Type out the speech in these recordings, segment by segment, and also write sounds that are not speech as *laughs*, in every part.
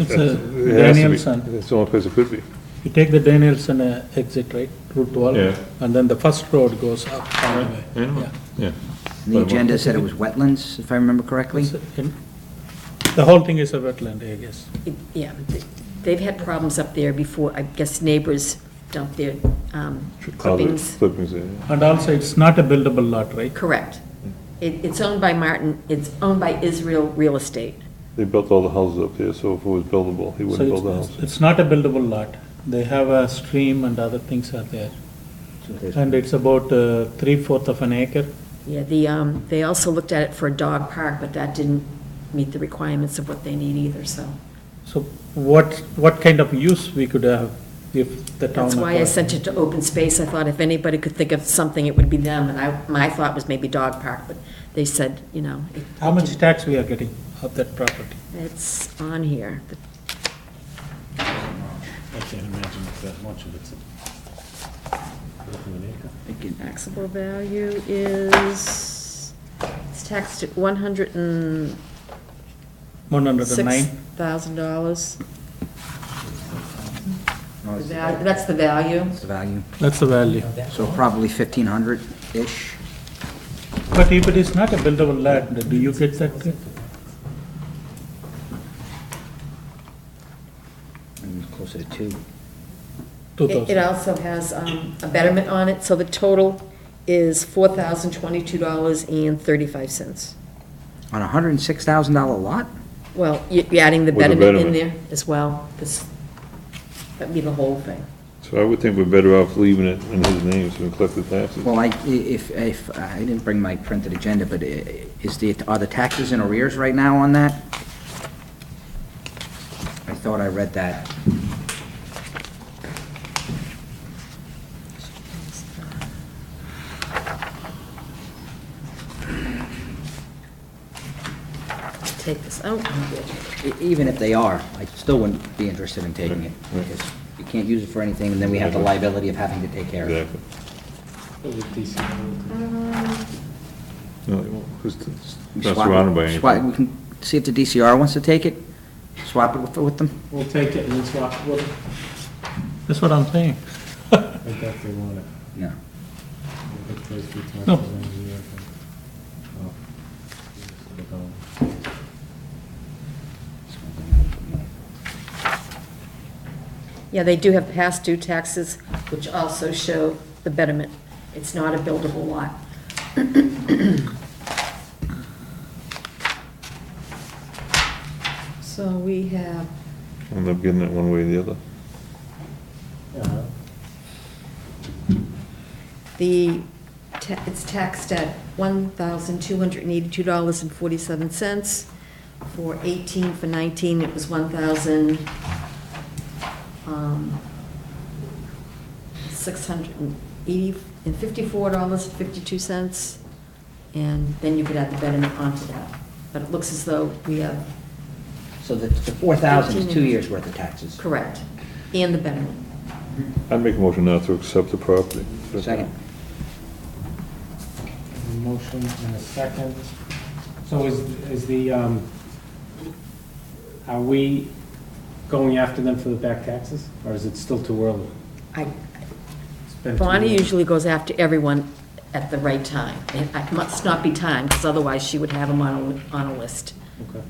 It's a It has to be. Danielson. That's the only place it could be. You take the Danielson uh, exit, right, Route 12? Yeah. And then the first road goes up all the way. I know. Yeah. Yeah. The agenda said it was wetlands, if I remember correctly. So, in- The whole thing is a wetland, I guess. It- Yeah, th- they've had problems up there before, I guess neighbors dump their um, clippings. Clippings, yeah. And also, it's not a buildable lot, right? Correct. It, it's owned by Martin, it's owned by Israel Real Estate. They built all the houses up there, so if it was buildable, he So wouldn't it's- build a house. It's not a buildable lot. They have a stream and other things are there. And it's about uh, three-fourth of an acre. Yeah, the, um, they also looked at it for a dog park, but that didn't meet the requirements of what they need either, so. So what, what kind of use we could have if the town... That's why I acquired? sent it to open space. I thought if anybody could think of something, it would be them. And I, my thought was maybe dog park, but they said, you know, it- How much tax we are getting of that property? it's on here. The I can't imagine it's that much of it's. Taxable value is, it's taxed at one hundred and six 109? thousand dollars. No, it's- That's the value. It's the value. That's the value. So probably 1,500-ish. But if it is not a buildable lot, do you get that? Mm, Closer to two. It it 2,000? also has um, a betterment on it, so the total is four thousand twenty-two dollars and thirty-five cents. On a $106,000 lot? Well, you- you're adding the With the betterment in there betterment. as well, because that'd be the whole thing. So I would think we're better off leaving it in his name so we collect the taxes. Well, I, i- if, if, I didn't bring my printed agenda, but i- is the, are the taxes in arrears right now on that? I thought I read that. Take this out. E- Even if they are, I still wouldn't be interested in taking it, because you can't use it for anything, and then we have the liability of having to take care of it. Exactly. No, they won't, 'cause it's We not swap it- surrounded by swap- anything. We can see if the DCR wants to take it, swap it with- with them. We'll take it and then swap, well, That's what I'm saying. I think they want it. No. We'll get those two taxes No. on the year, but- oh. They're gone. Yeah, they do have past due taxes, which also show the betterment. It's not a buildable lot. So we have, End up getting it one way or the other. Yeah. the, ta- it's taxed at $1,282.47. For 18, for 19, it was 1,000, um, six hundred and eighty, and fifty-four dollars, fifty-two cents, and then you could add the betterment onto that. But it looks as though we have, So the the 4,000 is two years' worth of taxes. correct, and the betterment. I'd make a motion now to accept the property. Second. A Motion and a second. So is, is the, um, are we going after them for the back taxes, or is it still too early? I, It's been too Bonnie early. usually goes after everyone at the right time, and it must not be time, because otherwise she would have them on a, on a list. Okay.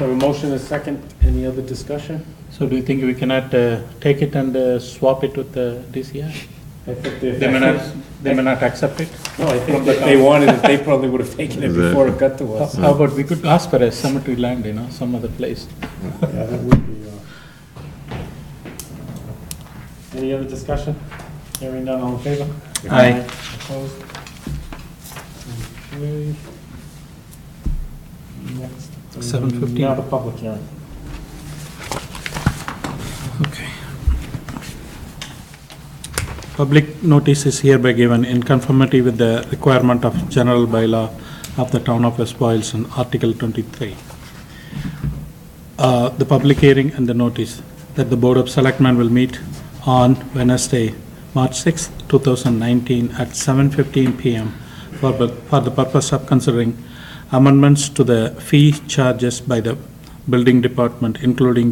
So a motion and a second, any other discussion? So do you think we cannot uh, take it and uh, swap it with the DCR? I think they- They may not, they may not accept it. No, I From think the if they town. *laughs* wanted it, they probably would have taken it before it got to How- *laughs* us. How about we could ask for a cemetery land, you know, some other place? Yeah, that would be, uh, Any other discussion? Hearing none, all in favor? Aye. Opposed? Okay. Next. 7:15. Now the public hearing. Okay. Public notice is hereby given in conformity with the requirement of general bylaw of the town of West Boylston, Article 23. Uh, The public hearing and the notice that the Board of Selectmen will meet on Wednesday, March 6, 2019, at 7:15 PM for the- for the purpose of considering amendments to the fee charges by the building department, including